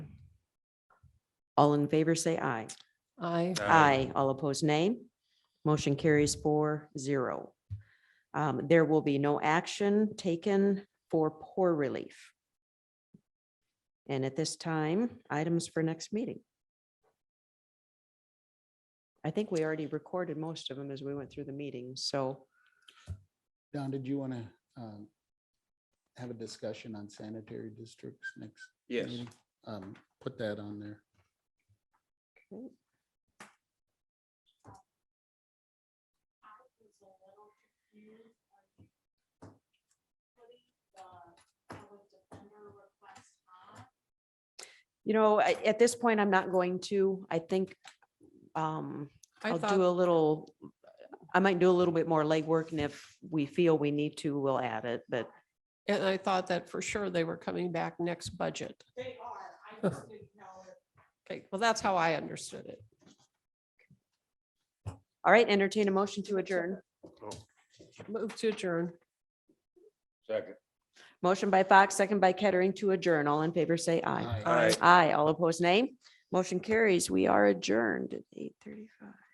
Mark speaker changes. Speaker 1: All in favor, say aye.
Speaker 2: Aye.
Speaker 1: Aye. All opposed, nay. Motion carries four zero. Um, There will be no action taken for poor relief. And at this time, items for next meeting. I think we already recorded most of them as we went through the meeting, so
Speaker 3: Don, did you want to have a discussion on sanitary districts next?
Speaker 4: Yes.
Speaker 3: meeting? Um, Put that on there.
Speaker 1: you know, I- at this point, I'm not going to, I think um,
Speaker 2: I
Speaker 1: I'll do a
Speaker 2: thought,
Speaker 1: little, I might do a little bit more legwork and if we feel we need to, we'll add it, but
Speaker 2: and I thought that for sure they were coming back next budget. They are. Okay, well, that's how I understood it.
Speaker 1: all right, entertain a motion to adjourn.
Speaker 2: Move to adjourn.
Speaker 4: Second.
Speaker 1: Motion by Fox, second by Kettering to adjourn. All in favor, say aye.
Speaker 3: Aye.
Speaker 4: Aye.
Speaker 1: Aye. All opposed, nay. Motion carries. We are adjourned at eight thirty-five.